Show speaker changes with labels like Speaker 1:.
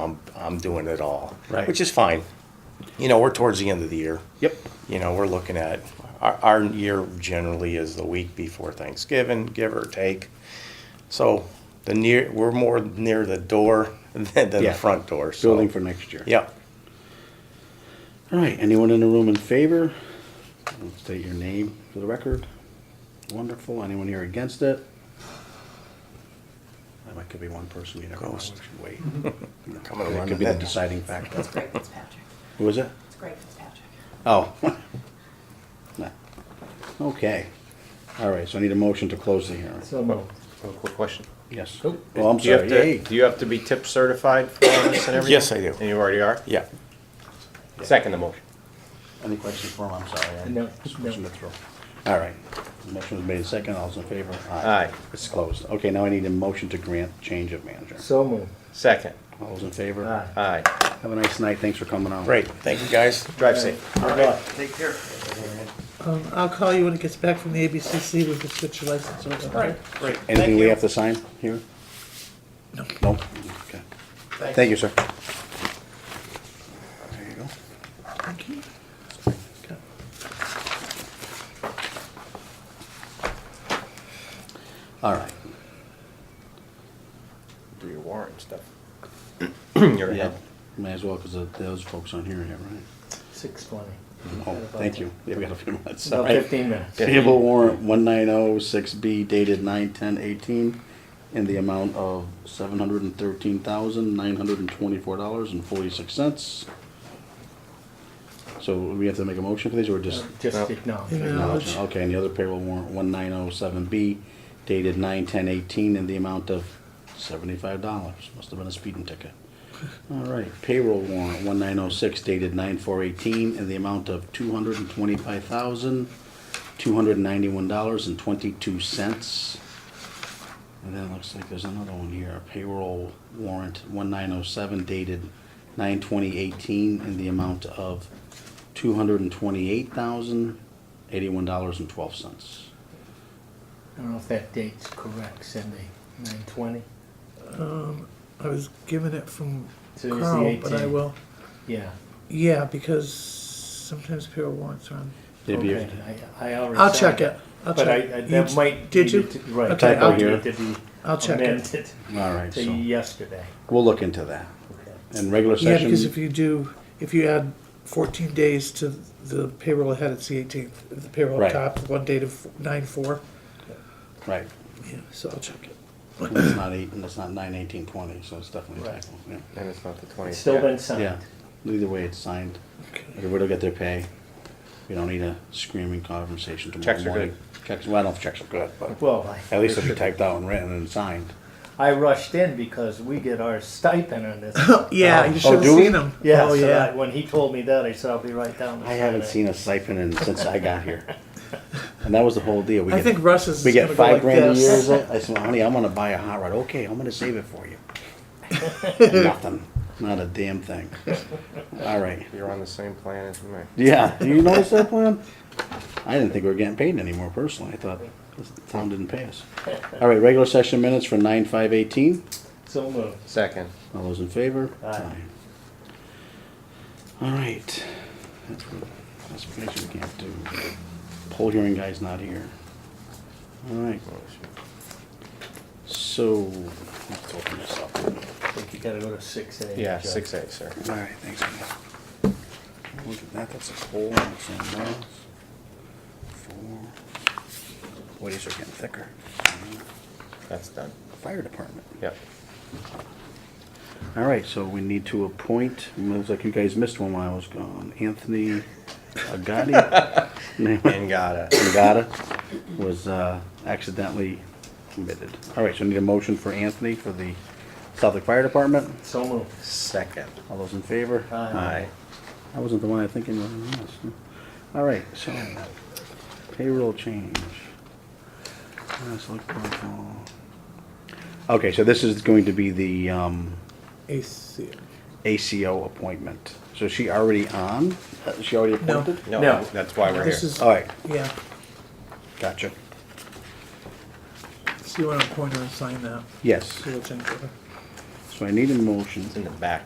Speaker 1: I'm, I'm doing it all.
Speaker 2: Right.
Speaker 1: Which is fine. You know, we're towards the end of the year.
Speaker 2: Yep.
Speaker 1: You know, we're looking at, our, our year generally is the week before Thanksgiving, give or take. So the near, we're more near the door than, than
Speaker 2: Yeah.
Speaker 1: the front door, so.
Speaker 2: Building for next year.
Speaker 1: Yep.
Speaker 2: All right, anyone in the room in favor? State your name for the record. Wonderful. Anyone here against it? That might could be one person you never know. We
Speaker 1: Ghost.
Speaker 2: should wait.
Speaker 1: Coming
Speaker 2: That
Speaker 1: around
Speaker 2: could
Speaker 1: the
Speaker 2: be the
Speaker 1: net.
Speaker 2: deciding factor.
Speaker 3: It's Greg Fitzpatrick.
Speaker 2: Who is it?
Speaker 3: It's Greg Fitzpatrick.
Speaker 2: Oh. Nah. Okay. All right, so I need a motion to close the hearing.
Speaker 4: So moved.
Speaker 5: Oh, Quick question.
Speaker 2: Yes.
Speaker 4: Nope.
Speaker 2: Well, I'm
Speaker 5: Do Oh, you have
Speaker 2: sorry.
Speaker 5: to,
Speaker 2: Yay.
Speaker 5: do you have to be tip certified for all this and everything?
Speaker 1: Yes, I do.
Speaker 5: And you already are?
Speaker 1: Yeah.
Speaker 5: Second the motion.
Speaker 2: Any questions for him? I'm sorry. I'm
Speaker 4: No,
Speaker 2: switching
Speaker 4: no.
Speaker 2: the throw. All right. Motion was made and second. All's in favor?
Speaker 5: Aye.
Speaker 2: It's closed. Okay, now I need a motion to grant change of manager.
Speaker 4: So moved.
Speaker 5: Second.
Speaker 2: All those in favor?
Speaker 4: Aye.
Speaker 5: Aye.
Speaker 2: Have a nice night. Thanks for coming on.
Speaker 1: Great. Thank you, guys.
Speaker 5: Drive safe.
Speaker 2: All right.
Speaker 6: Um, I'll call you when it gets back from the ABCC with the switch license or something.
Speaker 1: Great.
Speaker 2: Anything we have to sign here? No. No? Okay. Thank you, sir. There you go.
Speaker 6: Thank you. Okay.
Speaker 2: All right.
Speaker 5: Do your warrant and stuff. You're
Speaker 2: Yeah,
Speaker 5: ahead.
Speaker 2: may as well, because those folks aren't here yet, right?
Speaker 4: Six twenty.
Speaker 2: Oh, thank you. Yeah, we got a few minutes. All
Speaker 4: About
Speaker 2: right.
Speaker 4: fifteen minutes.
Speaker 2: Payable warrant one nine oh six B dated nine ten eighteen in the amount of seven hundred and thirteen thousand, nine hundred and twenty-four dollars and forty-six cents. So we have to make a motion for these or just?
Speaker 4: Just acknowledge.
Speaker 6: Yeah.
Speaker 4: it.
Speaker 2: acknowledge? Okay, and the other payroll warrant one nine oh seven B dated nine ten eighteen in the amount of seventy-five dollars. Must have been a speeding ticket. All right, payroll warrant one nine oh six dated nine four eighteen in the amount of two hundred and twenty-five thousand, two hundred and ninety-one dollars and twenty-two cents. And then it looks like there's another one here, payroll warrant one nine oh seven dated nine twenty eighteen in the amount of two hundred and twenty-eight thousand, eighty-one dollars and twelve cents.
Speaker 4: I don't know if that date's correct, Cindy. Nine twenty?
Speaker 6: I was given it from
Speaker 4: So it's the
Speaker 6: Carl, but I
Speaker 4: 18.
Speaker 6: will,
Speaker 4: Yeah.
Speaker 6: yeah, because sometimes payroll warrants are on.
Speaker 4: Okay. I, I already.
Speaker 6: I'll
Speaker 4: signed
Speaker 6: check it. I'll
Speaker 4: But I,
Speaker 6: check.
Speaker 4: I-
Speaker 6: You
Speaker 4: that
Speaker 6: d-
Speaker 4: might.
Speaker 6: did you?
Speaker 4: need to- Right.
Speaker 6: Okay,
Speaker 4: that
Speaker 2: I'll-
Speaker 4: might need to be
Speaker 6: I'll check it.
Speaker 4: amended
Speaker 2: All right,
Speaker 4: To
Speaker 2: so
Speaker 4: yesterday.
Speaker 2: we'll look into that.
Speaker 4: Okay.
Speaker 2: And regular
Speaker 6: Yeah, because if
Speaker 2: session,
Speaker 6: you do, if you add fourteen days to the payroll ahead, it's the eighteenth, the payroll
Speaker 2: Right.
Speaker 6: up top, one date of nine four.
Speaker 2: right,
Speaker 6: Yeah, so I'll check it.
Speaker 2: it's not eight, and it's not nine eighteen twenty, so it's definitely a
Speaker 4: Right.
Speaker 2: typo, yeah.
Speaker 5: And it's not the
Speaker 4: It's
Speaker 5: twentieth.
Speaker 4: still been
Speaker 2: Yeah,
Speaker 4: signed.
Speaker 2: either way, it's signed,
Speaker 6: Okay.
Speaker 2: everybody will get their pay, we don't need a screaming conversation tomorrow
Speaker 5: Checks are good.
Speaker 2: morning. Checks, well, I don't know if checks are good, but
Speaker 4: Well, I.
Speaker 2: at least if you typed out and written and signed.
Speaker 4: I rushed in because we get our stipend on this.
Speaker 6: Yeah, you should have
Speaker 2: do we?
Speaker 6: seen him.
Speaker 4: oh, Yeah,
Speaker 6: Oh,
Speaker 4: so
Speaker 6: yeah.
Speaker 4: that, when he told me that, I said, I'll be right down.
Speaker 2: I haven't seen a siphon in, since I got here, and that was the whole deal. We
Speaker 6: I
Speaker 2: get-
Speaker 6: think Russ is
Speaker 2: We
Speaker 6: gonna
Speaker 2: get
Speaker 6: go
Speaker 2: five
Speaker 6: like
Speaker 2: grand a year,
Speaker 6: this.
Speaker 2: is it? I said, honey, I'm gonna buy a hot rod. Okay, I'm gonna save it for you. Nothing, not a damn thing. All right.
Speaker 5: You're on the same plan as me.
Speaker 2: Yeah, do you notice that plan? I didn't think we were getting paid anymore personally. I thought the town didn't pay us. All right, regular session minutes for nine five eighteen.
Speaker 4: So moved.
Speaker 5: Second.
Speaker 2: All those in favor?
Speaker 4: Aye.
Speaker 2: All right. That's what, that's what makes we can't do. Poll hearing guy's not here. All right. So, let's open this up.
Speaker 4: I think you gotta go to six A.
Speaker 5: Yeah,
Speaker 4: Judge.
Speaker 5: six eight, sir.
Speaker 2: All right, thanks. man. Look at that, that's a poll. and it's on those. Four. Boy, these are getting thicker.
Speaker 5: That's done.
Speaker 2: Fire department.
Speaker 5: Yep.
Speaker 2: All right, so we need to appoint, it looks like you guys missed one while I was gone, Anthony Agati. Name-
Speaker 5: And gotta.
Speaker 2: Agata was uh, accidentally omitted. All right, so need a motion for Anthony for the Southwick Fire Department.
Speaker 4: So moved.
Speaker 5: Second.
Speaker 2: All those in favor?
Speaker 5: Uh,
Speaker 4: Aye.
Speaker 2: I wasn't the one I thinking was. yes. All right, so payroll change. Uh, select board call. Okay, so this is going to be the um,
Speaker 6: AC.
Speaker 2: ACO appointment. So is she already on? Uh, She already
Speaker 6: No.
Speaker 2: appointed?
Speaker 5: No,
Speaker 4: No.
Speaker 5: that's why we're
Speaker 6: This
Speaker 5: here.
Speaker 6: is,
Speaker 2: All right,
Speaker 6: yeah,
Speaker 2: gotcha.
Speaker 6: so you want to appoint her and sign that,
Speaker 2: Yes,
Speaker 6: so we'll change it.
Speaker 2: so I need a motion.
Speaker 5: It's in the back.